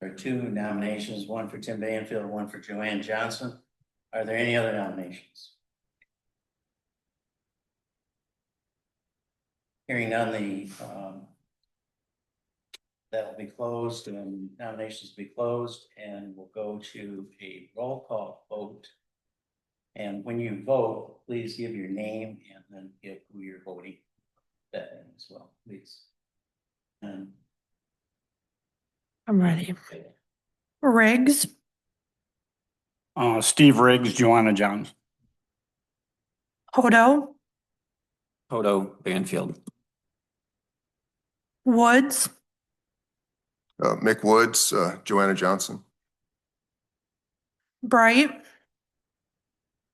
There are two nominations, one for Tim Banfield, one for Joanne Johnson. Are there any other nominations? Hearing none, the, um, that'll be closed and nominations will be closed and we'll go to a roll call vote. And when you vote, please give your name and then give who you're voting that name as well, please. And I'm ready. Riggs, Uh, Steve Riggs, Joanna Johns. Hodo, Hodo Banfield. Woods, Uh, Mick Woods, uh, Joanna Johnson. Bright,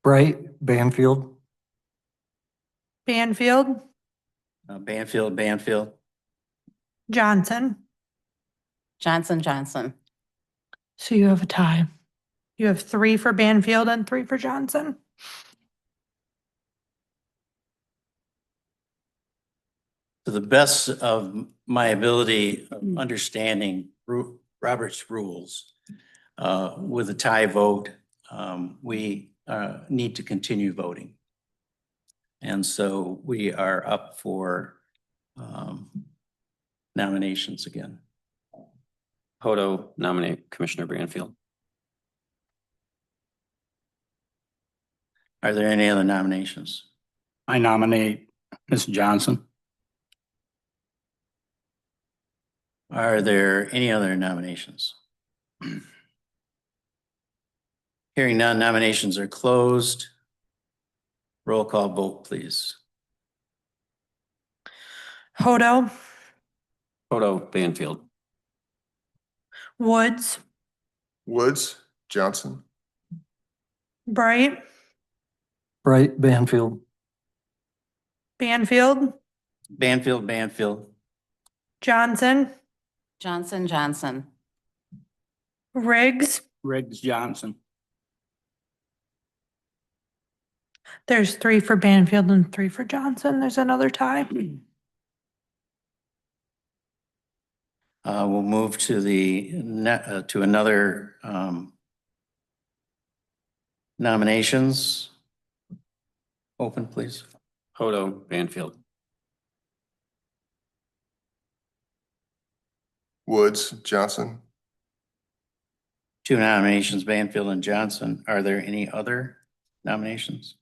Bright Banfield. Banfield, uh, Banfield, Banfield. Johnson. Johnson, Johnson. So you have a tie. You have three for Banfield and three for Johnson. To the best of my ability of understanding Ru- Robert's rules, uh, with a tie vote, um, we, uh, need to continue voting. And so we are up for, um, nominations again. Hodo nominate Commissioner Banfield. Are there any other nominations? I nominate Ms. Johnson. Are there any other nominations? Hearing none, nominations are closed. Roll call vote, please. Hodo, Hodo Banfield. Woods, Woods, Johnson. Bright, Bright Banfield. Banfield, Banfield, Banfield. Johnson, Johnson, Johnson. Riggs. Riggs Johnson. There's three for Banfield and three for Johnson. There's another tie. Uh, we'll move to the, ne- uh, to another, um, nominations. Open, please. Hodo Banfield. Woods, Johnson. Two nominations, Banfield and Johnson. Are there any other nominations?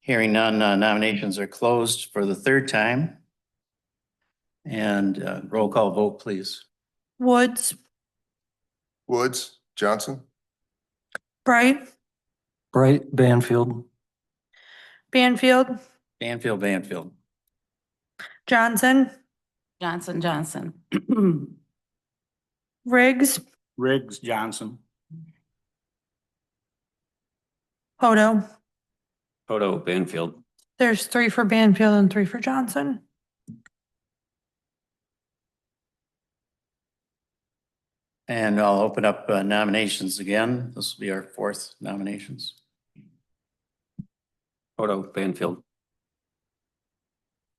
Hearing none, uh, nominations are closed for the third time. And uh, roll call vote, please. Woods, Woods, Johnson. Bright, Bright Banfield. Banfield, Banfield, Banfield. Johnson, Johnson, Johnson. Riggs, Riggs Johnson. Hodo. Hodo Banfield. There's three for Banfield and three for Johnson. And I'll open up uh, nominations again. This will be our fourth nominations. Hodo Banfield.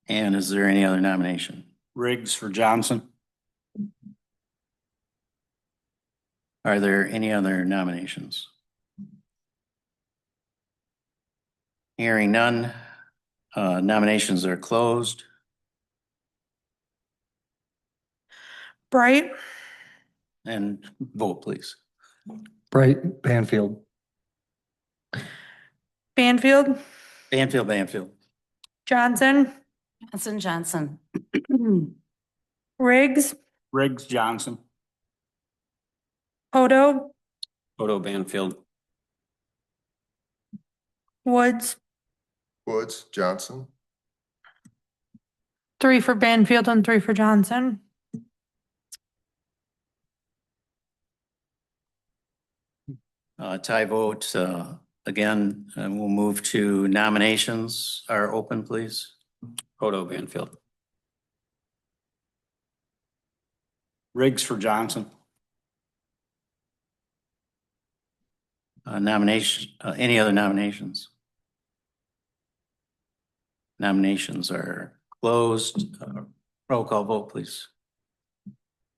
And is there any other nomination? Riggs for Johnson. Are there any other nominations? Hearing none, uh, nominations are closed. Bright, And vote, please. Bright Banfield. Banfield, Banfield, Banfield. Johnson, Johnson, Johnson. Riggs, Riggs Johnson. Hodo, Hodo Banfield. Woods. Woods, Johnson. Three for Banfield and three for Johnson. Uh, tie vote, uh, again, and we'll move to nominations are open, please. Hodo Banfield. Riggs for Johnson. Uh, nomination, uh, any other nominations? Nominations are closed. Uh, Roll call vote, please.